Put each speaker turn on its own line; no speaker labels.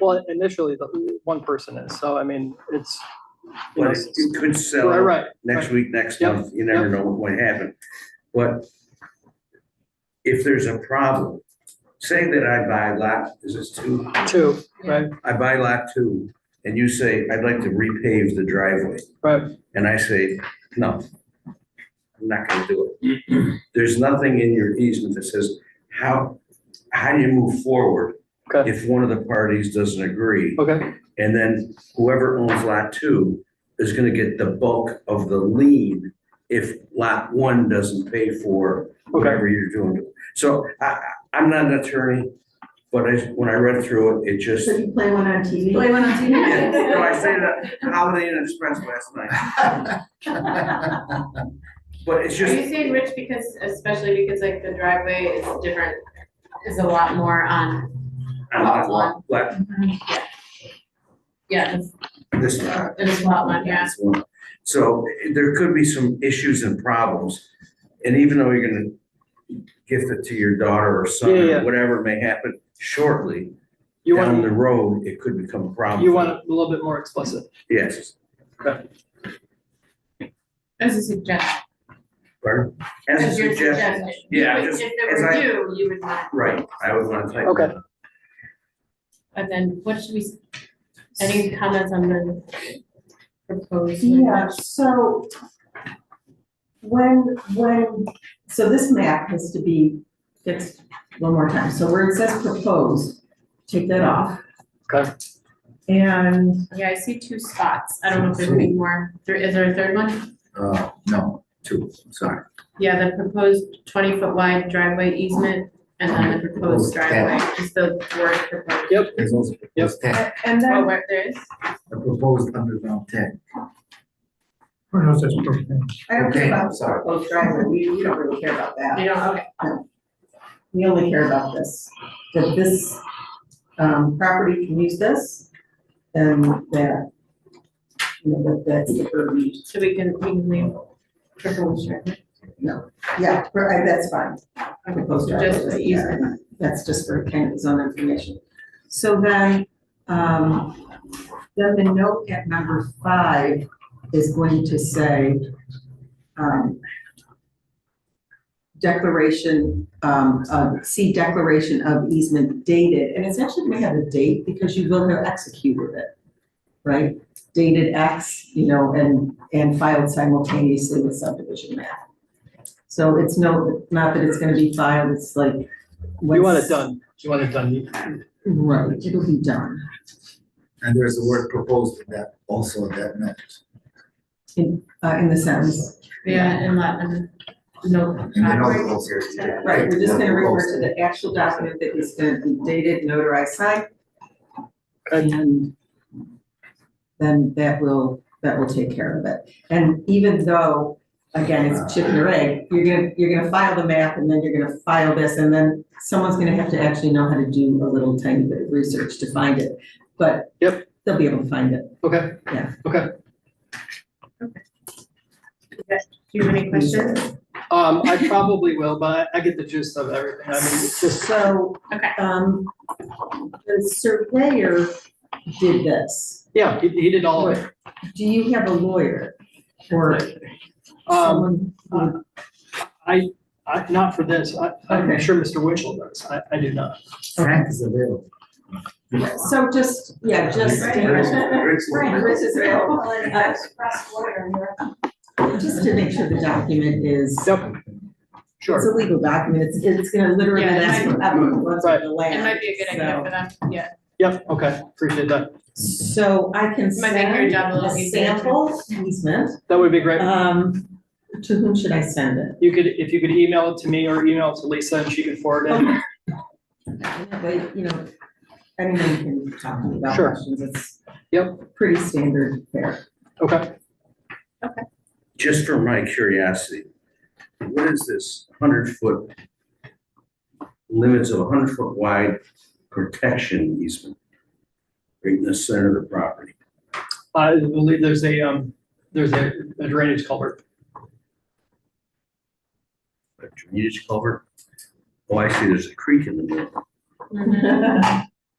Well, initially, the one person is, so I mean, it's, you know,
But it it could sell
right, right,
next week, next
Yep,
month, you never know what might happen. But if there's a problem, say that I buy lot, is this two?
two, right,
I buy lot two, and you say, I'd like to repave the driveway.
right,
And I say, no, I'm not gonna do it. There's nothing in your easement that says how, how do you move forward
Okay.
if one of the parties doesn't agree?
okay,
And then whoever owns lot two is gonna get the bulk of the lien if lot one doesn't pay for
okay,
whatever you're doing. So I, I- I'm not an attorney, but I, when I read through it, it just,
So you play one on TV?
Play one on
Yeah,
TV.
no, I say that Holiday Inn Express last night. But it's
Are
just,
you saying rich because, especially because like the driveway is different, is a lot more on,
I'm not one, but
yeah, it's,
this one.
it's a lot one, yeah.
This one. So eh, there could be some issues and problems, and even though you're gonna gift it to your daughter or son,
Yeah, yeah.
or whatever may happen shortly,
you
down the
want,
road, it could become a problem.
you want it a little bit more explicit,
Yes,
As a suggestion.
pardon? As a
As your
suggestion, Yeah,
You would-
just
If
as I-
there were you, you would not,
right, I would wanna type.
Okay.
but then what should we, s- any comments on the proposed?
Yeah, so when, when, so this map has to be fixed one more time. So where it says proposed, take that off.
Okay.
And
Yeah, I see two spots. I don't know if there's any more. There- Is there a third one?
Uh, no, two, sorry.
Yeah, the proposed twenty foot wide driveway easement and then the proposed driveway, just the word proposed.
There's also proposed tech,
and
Oh,
then,
where there is?
a proposed underground tech.
Pronounce that properly.
I don't care
Oh, Okay,
about
I'm sorry.
proposed driveway, we, we don't really care about that.
You don't, okay.
We only care about this, that this, um, property can use this and that, you know, that that's the purview.
So we can, we can leave proposed driveway.
Yeah, for- I- that's fine. Proposed driveway,
Just the
yeah, That's just for kind of zone information. So then, um, then the note at number five is going to say, um, declaration, um, of, see declaration of easement dated, and it's actually gonna have a date because you will have executed it, right? Dated X, you know, and, and filed simultaneously with subdivision map. So it's no, not that it's gonna be filed, it's like.
you want
what's-
it done, you want it done, You-
Right, it'll be done.
And there's a word proposed in that, also in that note.
Uh, in the sense,
Yeah, and let them know.
And the note also.
right, we're just gonna refer to the actual document that is gonna be dated, notarized, signed. And then that will, that will take care of it. And even though, again, it's chicken or egg, you're gonna, you're gonna file the map and then you're gonna file this and then someone's gonna have to actually know how to do a little tiny bit of research to find it, but
Yep.
they'll be able to find it.
okay,
Do you have any questions?
um, I probably will, but I I get the gist of everything, I mean, it's just,
So.
Okay.
Um, the surveyor did this.
yeah, he, he did all of it.
Do you have a lawyer or
Um,
someone? who-
I, I, not for this, I, I'm
Okay.
sure Mr. Winchell does, I, I do not.
Frank is available.
So just, yeah, just.
Frank.
is available and express lawyer. uh, Just to make sure the document is, it's
Yep. Sure,
a legal document, it's, it's gonna literally
Yeah, it
last
might-
forever, once
Right.
the
It
land.
might be a good idea
so-
for them, yeah.
yep, okay, appreciate that,
So I can
Might make your
send
job a little
a
easier too.
sample easement,
that would be great.
um, to whom should I send it?
You could, if you could email it to me or email it to Lisa and she could forward it.
But, you know, anyone can talk to me about
Sure.
questions, it's.
Yep.
Pretty standard there.
Okay,
Just for my curiosity, what is this hundred foot? Limits of hundred foot wide protection easement right in the center of the property.
I believe there's a, um, there's a a drainage culvert.
A drainage culvert. Oh, I see, there's a creek in the middle.
Mhm.